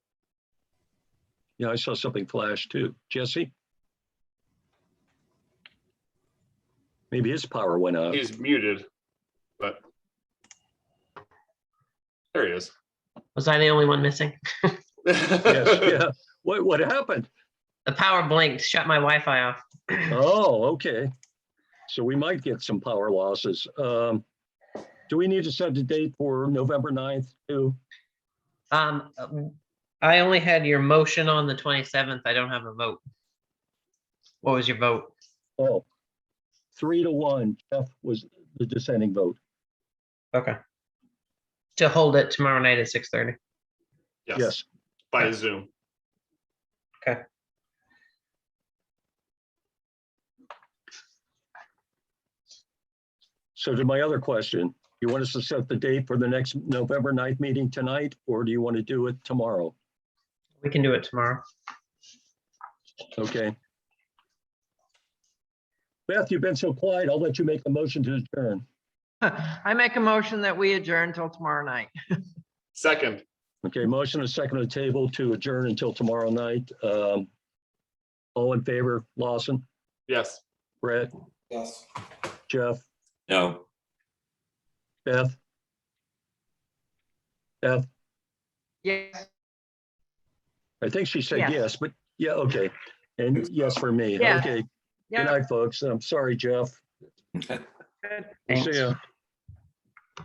Yeah, I saw something flash too. Jesse? Maybe his power went out. He's muted, but there he is. Was I the only one missing? Yes, yeah. What, what happened? The power blinked, shut my Wi-Fi off. Oh, okay. So we might get some power losses. Um, do we need to set a date for November 9th too? Um, I only had your motion on the twenty-seventh. I don't have a vote. What was your vote? Oh, three to one, Jeff was the dissenting vote. Okay. To hold it tomorrow night at six thirty. Yes, Yes, by Zoom. so to my other question, you want us to set the date for the next November 9th meeting tonight, or do you want to do it tomorrow? We can do it tomorrow. Okay. Beth, you've been so quiet. I'll let you make the motion to adjourn. I make a motion that we adjourn till tomorrow night. Second, Okay, motion and second on the table to adjourn until tomorrow night. Um, All in favor, Lawson, yes. Brett, Yes. Jeff, No. Beth? Beth, Yes. I think she said Yes. yes, but yeah, okay. And yes for me. Yeah. Okay, good Yeah. night, folks. I'm sorry, Jeff. Thanks. See ya.